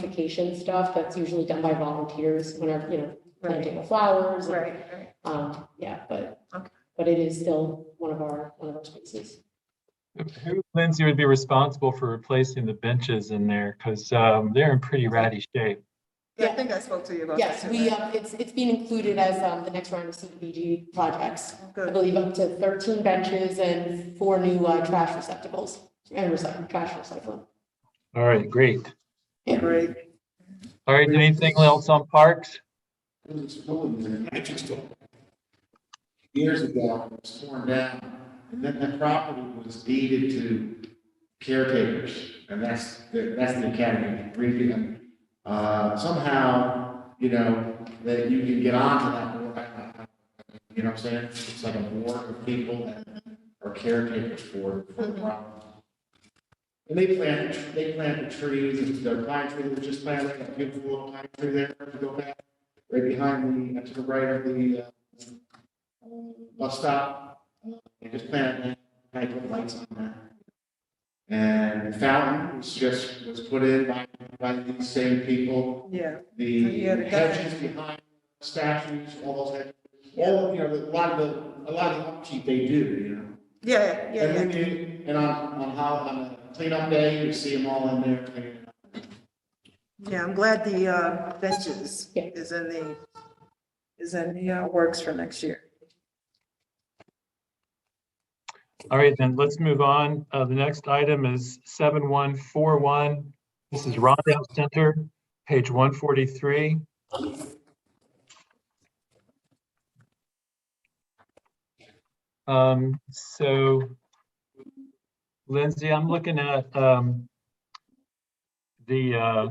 beautification stuff that's usually done by volunteers whenever, you know, planting of flowers. and, Right, right. Um, yeah, but, Okay. but it is still one of our, one of our spaces. Who, Lindsay, would be responsible for replacing the benches in there? Because um, they're in pretty ratty shape. Yeah, I Yeah. think I spoke to you about that. Yes, too, we, right? um, it's, it's being included as, um, the next round of CDBG projects. I Good. believe up to thirteen benches and four new, uh, trash receptacles and recycle, trash recycling. All right, great. Great. All right, anything else on parks? There was a building there, and I just don't. Years ago, it was torn down, and then the property was deeded to caretakers, and that's, that's the academy, Regan. Uh, somehow, you know, that you can get onto that board, I- I- I- you know what I'm saying? It's like a board of people that are caretakers for, for the property. And they planted, they planted trees, and the pine tree that was just planted, a beautiful little pine tree there, if you go back right behind the, uh, to the right of the uh, bus stop. They just planted that, had little lights on that. And the fountain was just, was put in by, by these same people. Yeah, The Yeah, the guy- hedges behind statues, all those hedges, all, you know, the- a lot of the, a lot of the upkeep they do, you know? yeah, yeah, And yeah, then you, and on, on how, on a cleanup day, you see them all in there cleaning up. yeah. I'm glad the uh, benches Yeah. is in the, is in the uh, works for next year. All right, then let's move on. Uh, The next item is 7141. This is Rondell Center, page 143. Um, So Lindsay, I'm looking at um, the uh,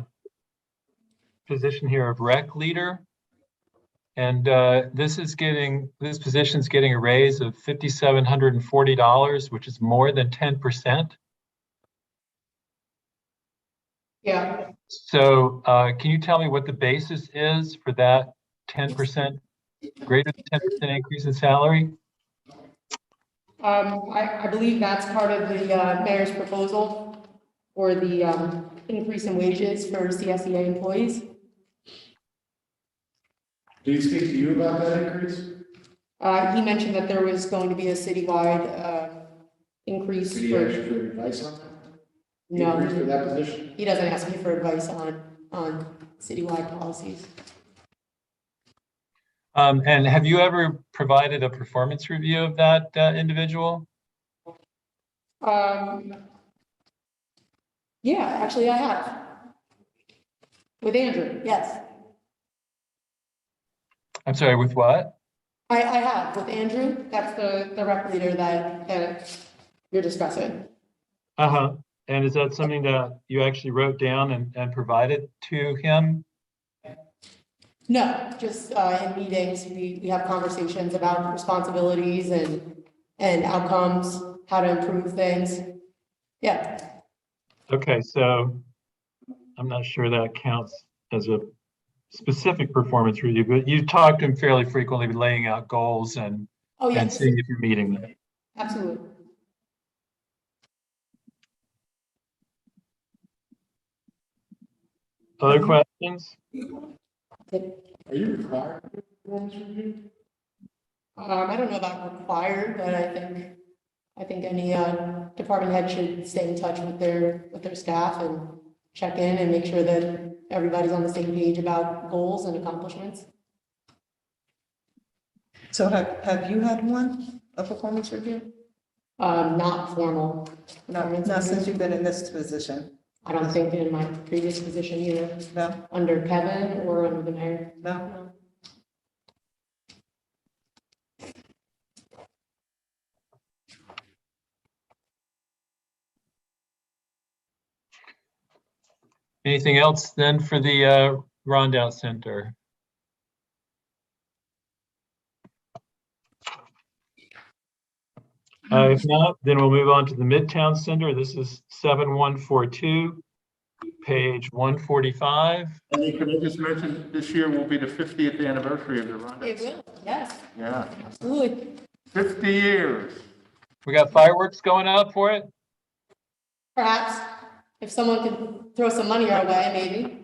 position here of rec leader. And uh, this is getting, this position's getting a raise of fifty-seven hundred and forty dollars, which is more than ten percent. Yeah, So uh, can you tell me what the basis is for that ten percent, greater than ten percent increase in salary? Um, I, I believe that's part of the, uh, mayor's proposal for the, um, increase in wages for CSEA employees. Did he speak to you about that increase? Uh, he mentioned that there was going to be a citywide, uh, increase Did he ask for, you for advice on that? Increase for no, that position? he doesn't ask me for advice on, on citywide policies. Um, And have you ever provided a performance review of that uh, individual? Um, yeah, actually I have. With Andrew, yes. I'm sorry, with what? I, I have with Andrew, that's the, the rep leader that, that you're discussing. Uh-huh. And is that something that you actually wrote down and and provided to him? No, just, uh, in meetings, we, we have conversations about responsibilities and, and outcomes, how to improve things. Yeah, Okay, so I'm not sure that counts as a specific performance review, but you talk to him fairly frequently, laying out goals and, oh, and yes, seeing if you're meeting them. absolutely. Mm-hmm. Other questions? Are you required to do performance review? Um, I don't know about required, but I think, I think any, uh, department head should stay in touch with their, with their staff and check in and make sure that everybody's on the same page about goals and accomplishments. So have, have you had one, a performance review? Um, not formal. Not, not since you've been in this position? I don't think in my previous position either, No, under Kevin or under the mayor. no? Anything else then for the uh, Rondout Center? Uh, If not, then we'll move on to the Midtown Center. This is 7142, page 145. And you could, I just mentioned, this year will be the 50th anniversary of the Rhonda. will, yes, Yeah, absolutely. 50 years. We got fireworks going up for it? Perhaps if someone could throw some money our way, maybe.